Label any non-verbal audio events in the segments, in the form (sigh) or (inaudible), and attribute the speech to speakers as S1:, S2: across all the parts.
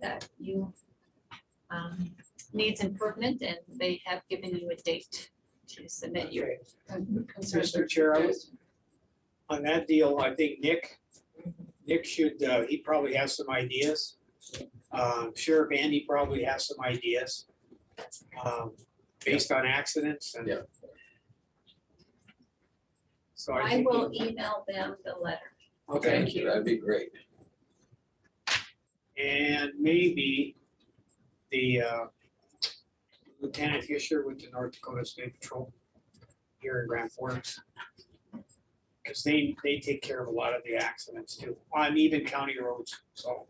S1: that you um, needs improvement and they have given you a date to submit your
S2: Okay,
S1: concerns.
S2: Mr. Chair, I was- On that deal, I think Nick, Nick should, uh, he probably has some ideas. Um, Sheriff Andy probably has some ideas. um, Based on accidents and.
S3: Yeah.
S2: So I
S1: I
S2: think.
S1: will email them the letter.
S2: Okay,
S3: Thank you, that'd be great.
S2: and maybe the uh, Lieutenant Fisher with the North Dakota State Patrol here in Grand Forks. Because they, they take care of a lot of the accidents too, on even county roads, so.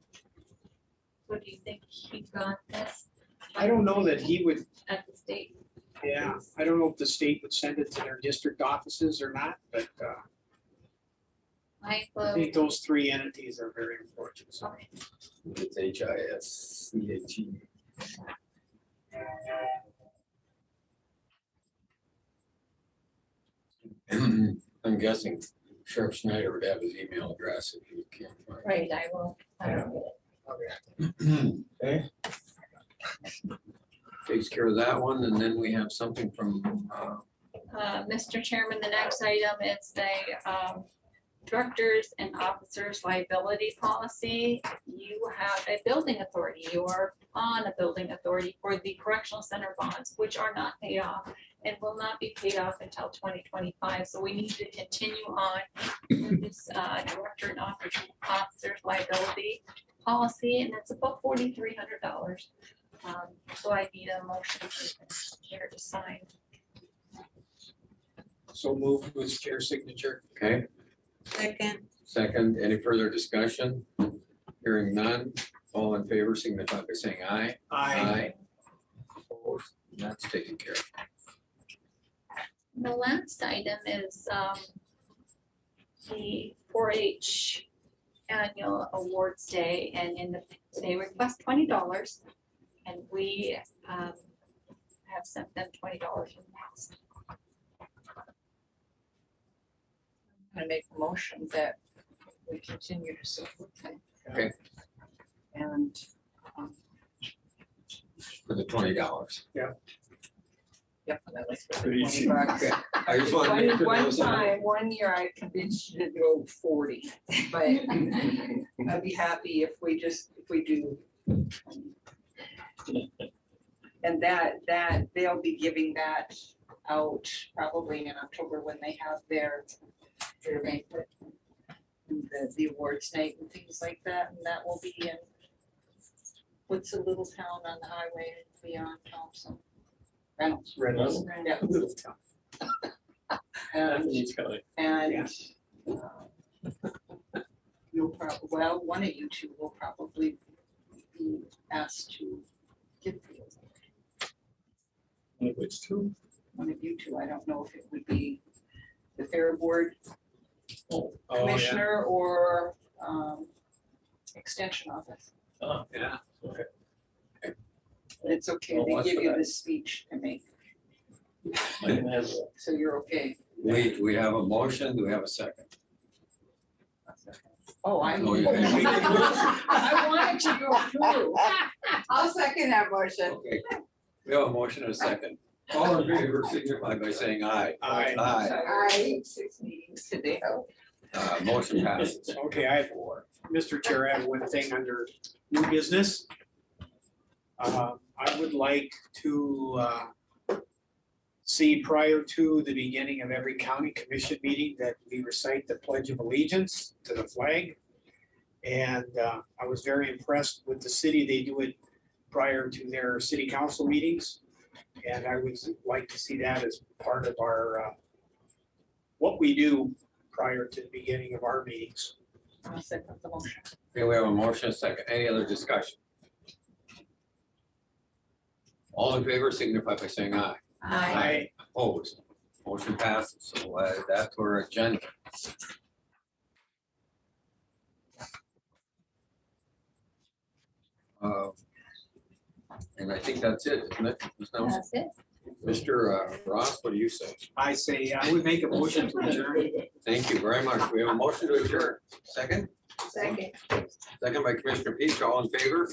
S1: What do you think he got this
S2: I don't know that he would,
S1: at the state?
S2: yeah, I don't know if the state would send it to their district offices or not, but uh,
S1: I
S2: I
S1: will,
S2: think those three entities are very important, so.
S1: okay,
S3: It's H I S C E. A T. (clears throat) I'm guessing Sheriff Snyder would have his email address if he can't
S1: right, I will. um, I will get
S3: find. it. Okay. Takes care of that one, and then we have something from, uh,
S1: Uh, Mr. Chairman, the next item is the um, Directors and Officers Liability Policy. You have a building authority, you are on a building authority for the correctional center bonds, which are not paid off and will not be paid off until twenty twenty-five, so we need to continue on with this uh, Director and Officer- Officers Liability Policy, and that's about forty-three hundred dollars. Um, So I need a motion for here to sign.
S2: So move with chair signature.
S3: okay,
S4: Second.
S3: second, any further discussion? Hearing none, all in favor signify by saying aye.
S2: I,
S3: Opposed? That's taken care of.
S1: The last item is um, the 4H Annual Awards Day, and in the, they request twenty dollars, and we um, have sent them twenty dollars in the past.
S4: I make a motion that we continue to support them.
S3: Okay.
S4: And um,
S3: For the twenty
S4: (laughs)
S3: dollars.
S4: definitely. for the
S3: Pretty cheap.
S4: 20 bucks.
S3: Okay. I just want to make sure
S4: One
S3: that
S4: one
S3: was on.
S4: time, one year I convinced you to go forty, but I'd be happy if we just, if we do. And that, that, they'll be giving that out probably in October when they have their, their banquet. and The, the awards night and things like that, and that will be in, what's a little town on the highway beyond Thompson? Reynolds.
S2: Red
S4: (laughs)
S2: Little.
S4: Yeah.
S2: Little town.
S4: And
S5: He's got like,
S4: and. uh, You'll probably, well, one of you two will probably be asked to give the award.
S5: one of which two?
S4: One of you two, I don't know if it would be the Fair Board
S2: Oh, yeah.
S4: Commissioner or um, Extension Office.
S5: Oh,
S2: Yeah.
S5: okay.
S4: It's okay,
S5: Well,
S4: they
S5: what's
S4: give you
S5: that?
S4: the speech to make,
S5: Mine has a-
S4: so you're okay.
S3: We, we have a motion, do we have a second?
S4: Oh, I.
S3: Oh, yeah.
S4: (laughs) I wanted to go through.
S6: I'll second that motion.
S3: Okay. We have a motion and a second. All in favor, signify by saying aye.
S2: Aye.
S3: Aye,
S6: I, six meetings today.
S3: uh, motion passes.
S2: Okay, I have one. Mr. Chair, I have one thing under new business. Uh, I would like to uh, see prior to the beginning of every county commission meeting that we recite the pledge of allegiance to the flag. And uh, I was very impressed with the city. They do it prior to their city council meetings. And I would like to see that as part of our, uh, what we do prior to the beginning of our meetings.
S4: I'll second the motion.
S3: Okay, we have a motion, and a second, any other discussion? All in favor, signify by saying aye.
S4: Aye.
S3: Opposed, motion passes, so uh, that's our agenda. Uh, And I think that's it, isn't it? Ms. Nelson?
S1: That's it.
S3: Mr. uh, Ross, what do you say?
S2: I say, I would make a motion to adjourn.
S3: Thank you very much. We have a motion to adjourn. Second,
S6: Second.
S3: second by Commissioner Peach, all in favor?